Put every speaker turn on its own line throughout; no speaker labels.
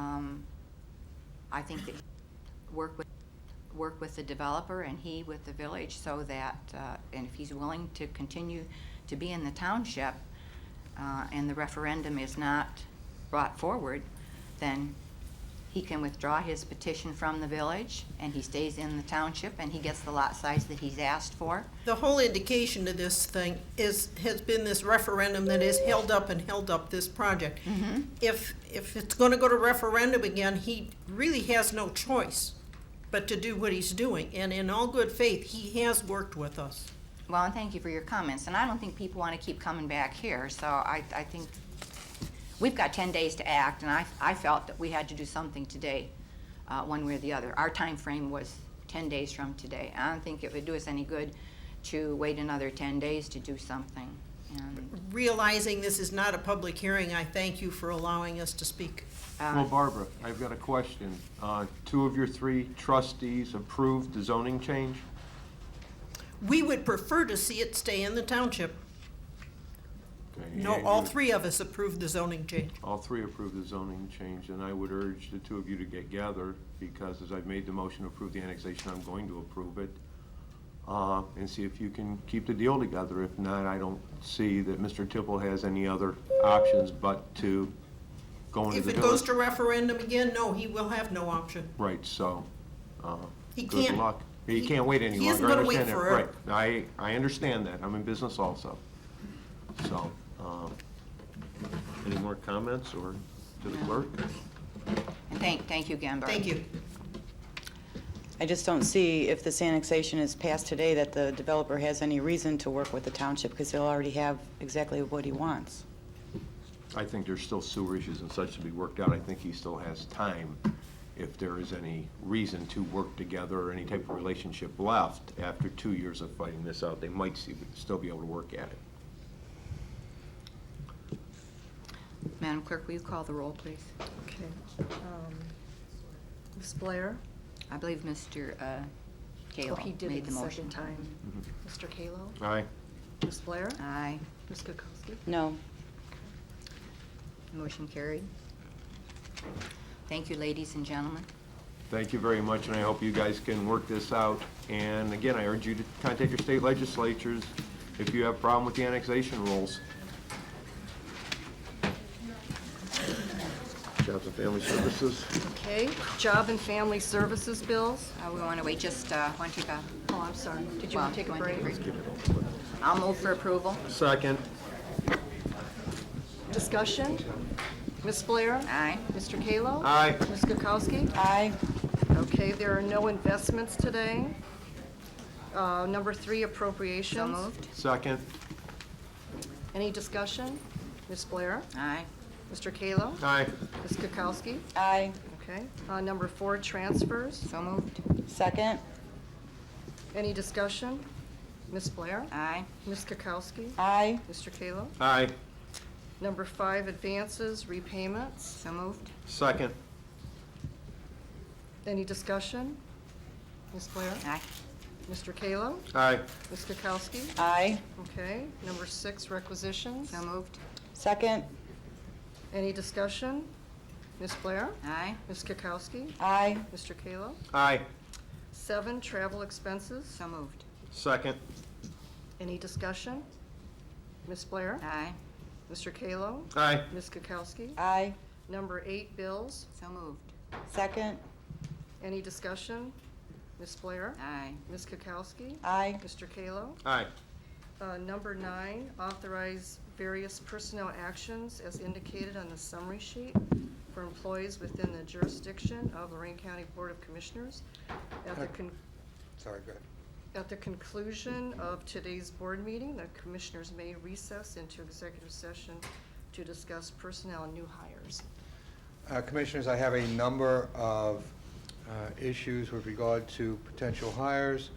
Um, I think that work with, work with the developer and he with the village so that, uh, and if he's willing to continue to be in the township, uh, and the referendum is not brought forward, then he can withdraw his petition from the village and he stays in the township and he gets the lot size that he's asked for.
The whole indication of this thing is, has been this referendum that has held up and held up this project. If, if it's gonna go to referendum again, he really has no choice but to do what he's doing. And in all good faith, he has worked with us.
Well, and thank you for your comments, and I don't think people want to keep coming back here, so I, I think we've got ten days to act, and I, I felt that we had to do something today, uh, one way or the other. Our time frame was ten days from today. I don't think it would do us any good to wait another ten days to do something. And,
Realizing this is not a public hearing, I thank you for allowing us to speak.
um,
Well,
Um,
Barbara, I've got a question. Uh, Two of your three trustees approved the zoning change?
We would prefer to see it stay in the township.
Okay,
No,
and
all
you-
three of us approved the zoning change.
All three approved the zoning change, and I would urge the two of you to get together, because as I've made the motion to approve the annexation, I'm going to approve it, uh, and see if you can keep the deal together. If not, I don't see that Mr. Tipple has any other options but to go into
If
the
it goes
village.
to referendum again, no, he will have no option.
Right, so, uh,
He
good
can't-
luck. He
he-
can't wait any
he isn't
longer, I
gonna wait
understand that, right.
forever.
I, I understand that, I'm in business also. So, uh, any more comments, or to the clerk?
and thank, thank you again, Barb.
Thank you.
I just don't see, if this annexation is passed today, that the developer has any reason to work with the township, because he'll already have exactly what he wants.
I think there's still sewer issues and such to be worked out. I think he still has time, if there is any reason to work together or any type of relationship left after two years of fighting this out. They might see, still be able to work at it.
Madam Clerk, will you call the roll, please?
Okay. um, Ms. Blair?
I believe Mr. uh,
Oh,
Kallo
He did
made
it
the
the
motion.
second time. Mr. Kallo?
Aye.
Ms. Blair?
Aye,
Ms. Kukowski?
No,
motion carried. Thank you, ladies and gentlemen.
Thank you very much, and I hope you guys can work this out. And again, I urge you to contact your state legislatures if you have a problem with the annexation rules. Jobs and Family Services.
Okay, Job and Family Services bills?
Uh, We want to wait just, uh, why don't you go?
Oh, I'm sorry. Did you
Well,
want to take a
you wanna
break?
take a I'll move for approval.
Second.
Discussion? Ms. Blair?
Aye.
Mr. Kallo?
uh,
Aye.
Ms. Kukowski?
Aye.
Okay, there are no investments today. Uh, Number three,
So
appropriations.
moved.
Second.
Any discussion? Ms. Blair?
Aye.
Mr. Kallo?
Aye.
Ms. Kukowski?
Aye.
Okay. Uh, Number four, transfers.
So moved.
Second?
Any discussion? Ms. Blair?
Aye.
Ms. Kukowski?
Aye.
Mr. Kallo?
Aye.
Number five, advances, repayments.
So moved.
Second.
Any discussion? Ms. Blair?
Aye.
Mr. Kallo?
Aye.
Ms. Kukowski?
Aye.
Okay. Number six, requisitions.
So moved.
Second?
Any discussion? Ms. Blair?
Aye.
Ms. Kukowski?
Aye.
Mr. Kallo?
Aye.
Seven, travel expenses.
So moved.
Second.
Any discussion? Ms. Blair?
Aye.
Mr. Kallo?
Aye.
Ms. Kukowski?
Aye.
Number eight, bills.
So moved.
Second?
Any discussion? Ms. Blair?
Aye.
Ms. Kukowski?
Aye.
Mr. Kallo?
Aye.
Uh, Number nine, authorize various personnel actions as indicated on the summary sheet for employees within the jurisdiction of Lorraine County Board of Commissioners. At the con-
Sorry, go ahead.
At the conclusion of today's board meeting, the commissioners may recess into executive session to discuss personnel and new hires.
Uh, Commissioners, I have a number of uh, issues with regard to potential hires,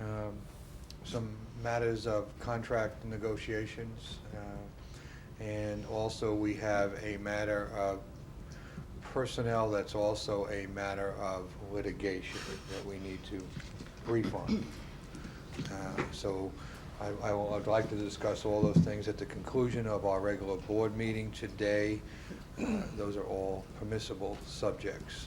um, some matters of contract negotiations, uh, and also we have a matter of personnel that's also a matter of litigation that we need to brief on. Uh, So I- I will, I'd like to discuss all those things at the conclusion of our regular board meeting today. Uh, Those are all permissible subjects.